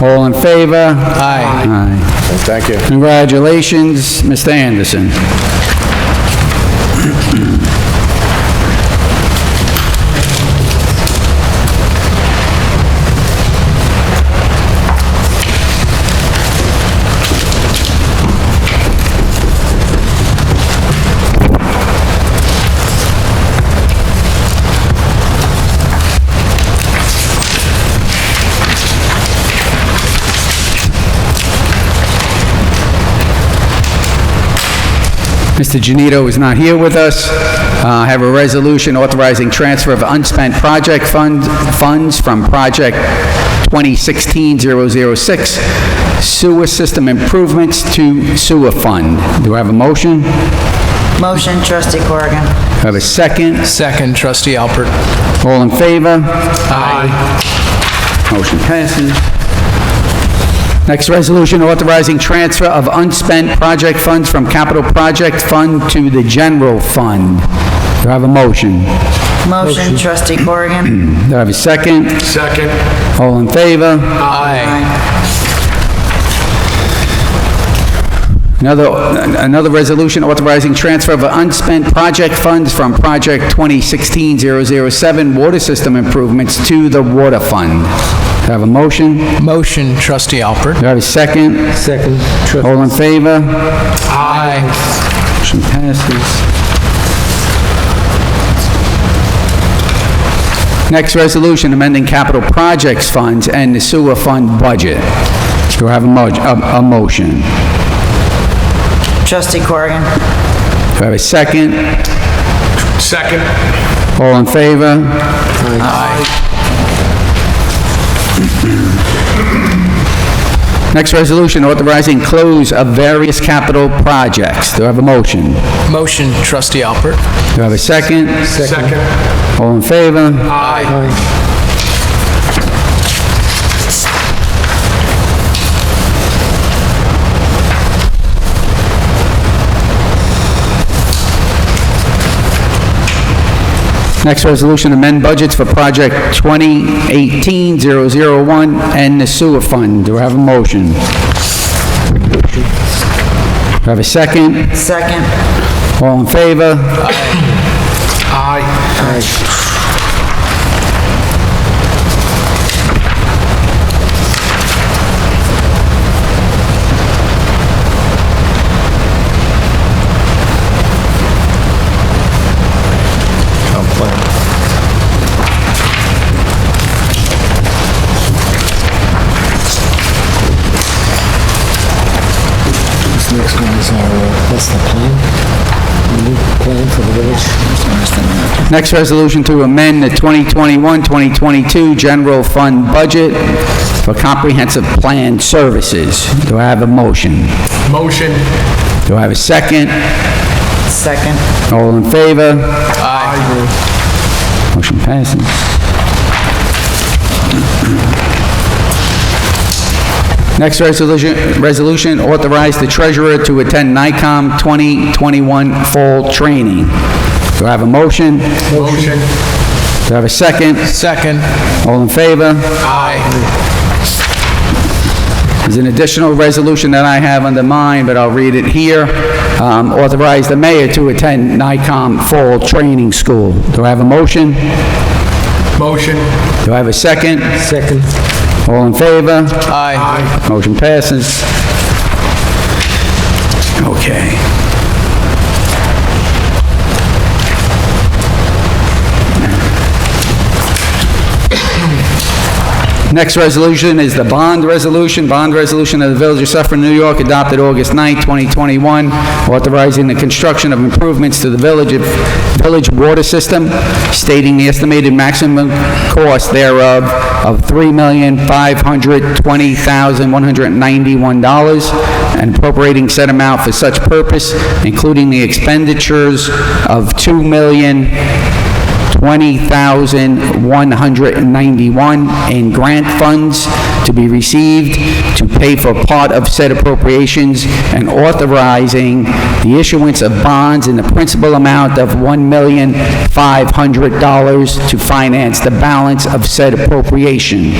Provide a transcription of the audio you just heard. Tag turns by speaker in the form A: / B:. A: All in favor? Aye.
B: Well, Thank you.
A: Congratulations, Mr. Anderson. Mr. Genito is not here with us. Uh, I have a resolution authorizing transfer of unspent project fund, funds from Project 2016-006 Sewer System Improvements to Sewer Fund. Do I have a motion?
C: Motion, trustee Corrigan.
A: Have a second?
D: Second, trustee Alpert.
A: All in favor?
D: Aye.
A: Motion passes. Next resolution authorizing transfer of unspent project funds from capital project fund to the general fund. Do I have a motion? Do
C: Motion, trustee Corrigan.
A: I have a second?
B: Second.
A: All in favor?
D: Aye.
A: Another, another resolution authorizing transfer of unspent project funds from project 2016-007 water system improvements to the water fund. Do I have a motion? Do
D: Motion, trustee Alpert.
A: I have a second?
E: Second, trustee
A: All in favor?
D: Aye.
A: Motion passes. Next resolution, amending capital projects funds and the sewer fund budget. Do I have a mo, a, a motion? Do I
C: Trustee Corrigan.
A: have a second?
B: Second.
A: All in favor? Next resolution, authorizing close of various capital projects. Do I have a motion? Do
D: Motion, trustee Alpert.
A: I have a second?
B: Second.
A: All in favor?
D: Aye.
A: Next resolution, amend budgets for project 2018-001 and the sewer fund. Do I have a motion? Do I have a second?
C: Second.
A: All in favor?
B: Aye.
E: This next one is our, uh, that's the plan, the new plan for the village.
A: Next resolution to amend the 2021-2022 general fund budget for comprehensive plan services. Do I have a motion?
B: Motion.
A: Do I have a second?
C: Second.
A: All in favor? Aye. Motion passes. Next resolution, resolution authorize the treasurer to attend NICOM 2021 fall training. Do I have a motion? Do
B: Motion.
A: I have a second?
D: Second.
A: All in favor?
D: Aye.
A: There's an additional resolution that I have under mine, but I'll read it here. Um, Authorize the mayor to attend NICOM Fall Training School. Do I have a motion?
B: Motion.
A: Do I have a second?
E: Second,
A: All in favor?
D: Aye.
B: Aye.
A: Motion passes. Okay. Next resolution is the bond resolution. Bond resolution of the Village of Suffering, New York, adopted August 9, 2021, authorizing the construction of improvements to the village, village water system, stating the estimated maximum cost thereof of $3,520,191 and appropriating said amount for such purpose, including the expenditures of 2 million $20,191 in grant funds to be received to pay for part of said appropriations and authorizing the issuance of bonds in the principal amount of $1,500 to finance the balance of said appropriation.